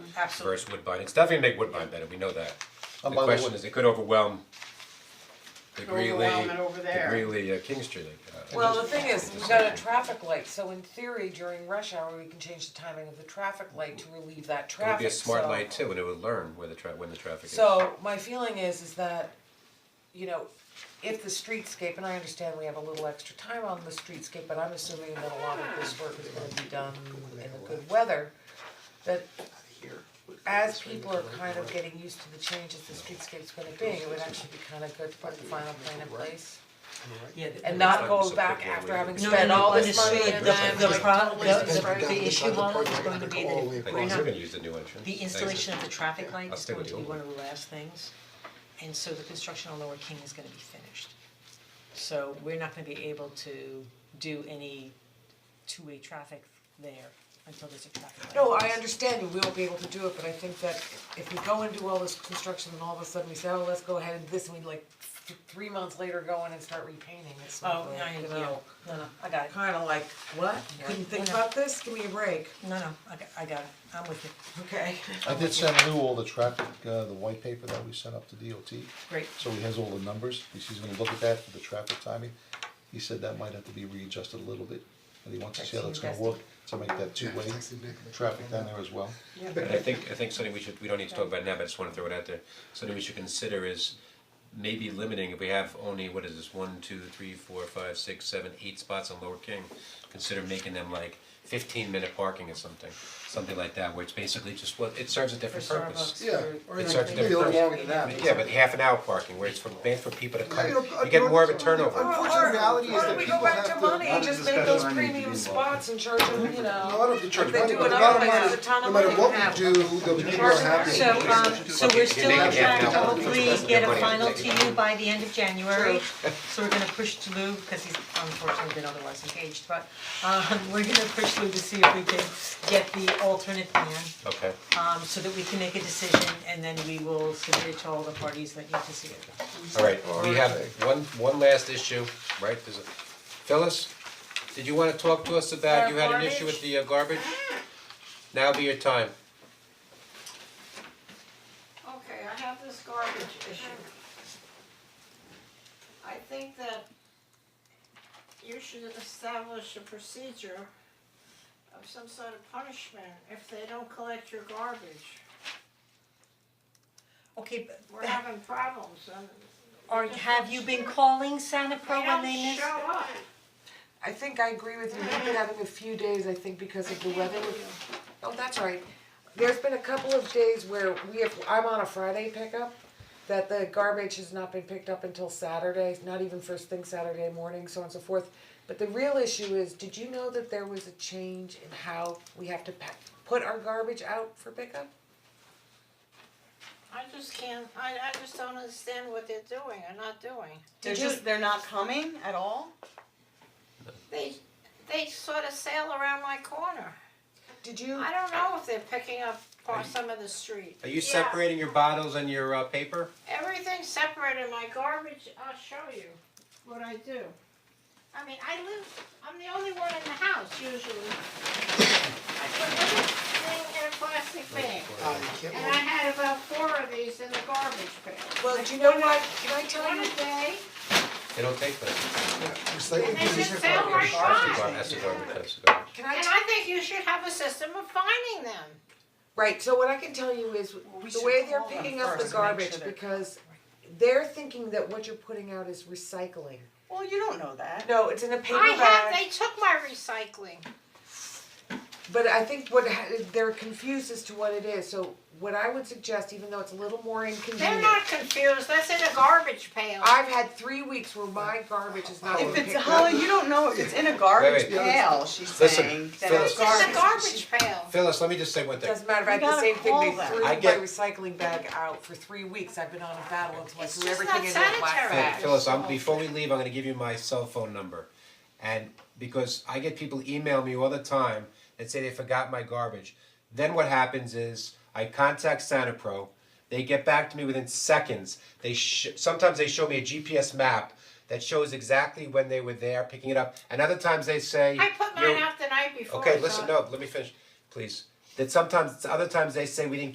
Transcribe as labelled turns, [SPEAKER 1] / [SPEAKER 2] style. [SPEAKER 1] Absolutely.
[SPEAKER 2] versus Woodbine, it's definitely make Woodbine better, we know that. The
[SPEAKER 3] by the
[SPEAKER 2] question
[SPEAKER 3] way-
[SPEAKER 2] is, it could overwhelm the
[SPEAKER 1] Could
[SPEAKER 2] Greeley,
[SPEAKER 1] overwhelm it over
[SPEAKER 2] the
[SPEAKER 1] there.
[SPEAKER 2] Greeley uh, King Street, uh,
[SPEAKER 4] Well, the thing is, we've got a traffic light, so in theory during rush hour, we can change the timing of the traffic light to relieve that
[SPEAKER 2] it would
[SPEAKER 4] traffic,
[SPEAKER 2] be a smart
[SPEAKER 4] so-
[SPEAKER 2] light too, and it would learn where the tra- when the traffic is.
[SPEAKER 4] So my feeling is is that, you know, if the streetscape, and I understand we have a little extra time on the streetscape, but I'm assuming that a lot of this work is gonna be done in the good weather. That as people are kind of getting used to the changes the streetscape's gonna be, it would actually be kind of good to put the final plan in place.
[SPEAKER 5] Yeah,
[SPEAKER 4] And
[SPEAKER 5] not
[SPEAKER 4] not go back after having
[SPEAKER 5] No,
[SPEAKER 4] spent
[SPEAKER 5] no,
[SPEAKER 4] all
[SPEAKER 5] but
[SPEAKER 4] this
[SPEAKER 5] it's
[SPEAKER 4] money
[SPEAKER 5] really
[SPEAKER 4] and
[SPEAKER 5] the-
[SPEAKER 4] then
[SPEAKER 5] the
[SPEAKER 4] like,
[SPEAKER 5] pro-
[SPEAKER 4] totally
[SPEAKER 5] the-
[SPEAKER 4] destroyed.
[SPEAKER 5] the- issue Lana, is going to be that
[SPEAKER 3] All the way
[SPEAKER 2] I
[SPEAKER 5] we're
[SPEAKER 2] think
[SPEAKER 3] across.
[SPEAKER 2] we're
[SPEAKER 5] not-
[SPEAKER 2] gonna use the new entrance.
[SPEAKER 5] the
[SPEAKER 2] exit.
[SPEAKER 5] installation of the traffic light
[SPEAKER 2] I'll
[SPEAKER 5] is
[SPEAKER 2] stay
[SPEAKER 5] going
[SPEAKER 2] with
[SPEAKER 5] to
[SPEAKER 2] the
[SPEAKER 5] be
[SPEAKER 2] old
[SPEAKER 5] one of the last things. And so the construction on Lower King is gonna be finished. So we're not gonna be able to do any two-way traffic there until there's a traffic light.
[SPEAKER 4] No, I understand you will be able to do it, but I think that if we go and do all this construction and all of a sudden we say, oh, let's go ahead and this, and we like th- three months later go in and start repainting, it's
[SPEAKER 5] Oh,
[SPEAKER 4] not
[SPEAKER 5] no, I,
[SPEAKER 4] like, you
[SPEAKER 5] yeah,
[SPEAKER 4] know.
[SPEAKER 5] no, no, I got it.
[SPEAKER 4] Kinda like, what,
[SPEAKER 5] Yeah.
[SPEAKER 4] couldn't think
[SPEAKER 5] Yeah.
[SPEAKER 4] about this, give me a break,
[SPEAKER 5] No, no, I got, I got it. I'm with you.
[SPEAKER 4] okay?
[SPEAKER 3] I did send Lou all the traffic, uh, the white paper that we sent up to DOT,
[SPEAKER 5] Great.
[SPEAKER 3] so he has all the numbers, he's he's gonna look at that for the traffic timing. He said that might have to be readjusted a little bit, and he wants to see how that's gonna work, to make that two-way traffic down there as well.
[SPEAKER 2] And I think, I think something we should, we don't need to talk about it now, but I just wanna throw it out there, something we should consider is maybe limiting, if we have only, what is this, one, two, three, four, five, six, seven, eight spots on Lower King, consider making them like fifteen minute parking or something, something like that, where it's basically just, well, it serves a different purpose.
[SPEAKER 6] Yeah,
[SPEAKER 2] or It serves a
[SPEAKER 6] Maybe a
[SPEAKER 2] different
[SPEAKER 6] little
[SPEAKER 2] purpose.
[SPEAKER 6] longer than that.
[SPEAKER 2] Yeah, but half an hour parking, where it's for, made for people to come,
[SPEAKER 6] You know, uh,
[SPEAKER 2] you get more of a turnover.
[SPEAKER 6] Unfortunately, reality is that people have to.
[SPEAKER 4] just make those premium spots and charge them, you
[SPEAKER 6] No, I don't have to charge
[SPEAKER 4] They
[SPEAKER 6] money,
[SPEAKER 4] do
[SPEAKER 6] but
[SPEAKER 4] it
[SPEAKER 6] no
[SPEAKER 4] other
[SPEAKER 6] matter
[SPEAKER 4] places,
[SPEAKER 6] what-
[SPEAKER 4] a ton of money
[SPEAKER 6] No
[SPEAKER 4] you
[SPEAKER 6] matter what
[SPEAKER 4] have.
[SPEAKER 6] we do, the people are happy.
[SPEAKER 5] So um so we're still on
[SPEAKER 2] Make it half
[SPEAKER 5] track to
[SPEAKER 2] an hour.
[SPEAKER 5] hopefully get a
[SPEAKER 2] Money,
[SPEAKER 5] final
[SPEAKER 2] take it.
[SPEAKER 5] to you by the end of January. So we're gonna push to Lou, because he's unfortunately been otherwise engaged, but um we're gonna push Lou to see if we can get the alternate plan.
[SPEAKER 2] Okay,
[SPEAKER 5] Um so that we can make a decision and then we will submit it to all the parties that need to see it.
[SPEAKER 2] alright, we have one, one last issue, right, there's a, Phyllis, did you wanna talk to us about, you had an issue with the uh, garbage? Now be your time.
[SPEAKER 7] Okay, I have this garbage issue. I think that you should establish a procedure of some sort of punishment if they don't collect your garbage.
[SPEAKER 5] Okay, but
[SPEAKER 7] We're having problems and
[SPEAKER 5] are have you been calling Santa Pro
[SPEAKER 7] they
[SPEAKER 5] when
[SPEAKER 7] don't
[SPEAKER 5] they miss?
[SPEAKER 7] show up.
[SPEAKER 4] I think I agree with you, we've been having a few days, I think because of the weather, oh, that's all right. There's been a couple of days where we have, I'm on a Friday pickup, that the garbage has not been picked up until Saturday, not even first thing Saturday morning, so on and so forth. But the real issue is, did you know that there was a change in how we have to pack, put our garbage out for pickup?
[SPEAKER 7] I just can't, I I just don't understand what they're doing or not doing.
[SPEAKER 8] They're
[SPEAKER 4] Did you-
[SPEAKER 8] just, they're not coming at all?
[SPEAKER 7] They they sort of sail around my corner.
[SPEAKER 4] Did you?
[SPEAKER 7] I don't know if they're picking up on some of the street.
[SPEAKER 2] Are you separating your bottles and your uh, paper?
[SPEAKER 7] Everything's separated, my garbage, I'll show you what I do. I mean, I live, I'm the only one in the house usually. I put everything in a plastic bag,
[SPEAKER 6] Uh, you can't
[SPEAKER 7] and I had about four of these in the garbage bag.
[SPEAKER 4] Well, do you know what, can I tell
[SPEAKER 7] One
[SPEAKER 4] you?
[SPEAKER 7] a day,
[SPEAKER 2] They don't take that.
[SPEAKER 6] recycle
[SPEAKER 7] and they
[SPEAKER 6] these.
[SPEAKER 7] just fell right
[SPEAKER 2] That's the
[SPEAKER 7] by.
[SPEAKER 2] gar- that's the garbage, that's the garbage.
[SPEAKER 4] Can I
[SPEAKER 7] And
[SPEAKER 4] tell,
[SPEAKER 7] I think you should have a system of finding them.
[SPEAKER 4] right, so what I can tell you is,
[SPEAKER 8] we
[SPEAKER 4] the
[SPEAKER 8] should
[SPEAKER 4] way they're
[SPEAKER 8] call them
[SPEAKER 4] picking up the
[SPEAKER 8] first and make sure
[SPEAKER 4] garbage,
[SPEAKER 8] they're-
[SPEAKER 4] because they're thinking that what you're putting out is recycling.
[SPEAKER 8] Well, you don't know that.
[SPEAKER 4] No, it's in a paper
[SPEAKER 7] I have,
[SPEAKER 4] bag,
[SPEAKER 7] they took my recycling.
[SPEAKER 4] but I think what, ha- they're confused as to what it is, so what I would suggest, even though it's a little more
[SPEAKER 7] They're
[SPEAKER 4] inconvenient.
[SPEAKER 7] not confused, that's in a garbage pail.
[SPEAKER 4] I've had three weeks where my garbage is not
[SPEAKER 8] If
[SPEAKER 4] being
[SPEAKER 8] it's,
[SPEAKER 4] picked up.
[SPEAKER 8] Holly, you don't know if it's in a garbage
[SPEAKER 2] Wait, wait.
[SPEAKER 8] pail, she's
[SPEAKER 2] Listen,
[SPEAKER 8] saying, that
[SPEAKER 2] Phyllis.
[SPEAKER 8] it's
[SPEAKER 7] It's
[SPEAKER 8] garbage.
[SPEAKER 7] in a garbage pail.
[SPEAKER 2] Phyllis, let me just say one thing.
[SPEAKER 4] Doesn't matter, I had
[SPEAKER 8] We
[SPEAKER 4] the
[SPEAKER 8] gotta
[SPEAKER 4] same thing, they
[SPEAKER 8] call them.
[SPEAKER 4] threw
[SPEAKER 2] I
[SPEAKER 4] my
[SPEAKER 2] get-
[SPEAKER 4] recycling bag out for three weeks, I've been on a battle, until I
[SPEAKER 7] It's
[SPEAKER 4] threw
[SPEAKER 7] just
[SPEAKER 4] everything
[SPEAKER 7] not
[SPEAKER 4] into a black
[SPEAKER 7] sanitary.
[SPEAKER 4] bag.
[SPEAKER 2] Hey, Phyllis,
[SPEAKER 7] Oh.
[SPEAKER 2] I'm, before we leave, I'm gonna give you my cell phone number. And because I get people email me all the time that say they forgot my garbage. Then what happens is I contact Santa Pro. They get back to me within seconds. They sh- sometimes they show me a GPS map that shows exactly when they were there picking it up. And other times they say
[SPEAKER 7] I put
[SPEAKER 2] "You're-
[SPEAKER 7] mine out the night before.
[SPEAKER 2] Okay,
[SPEAKER 7] so-
[SPEAKER 2] listen, no, let me finish, please. that sometimes, other times they say we didn't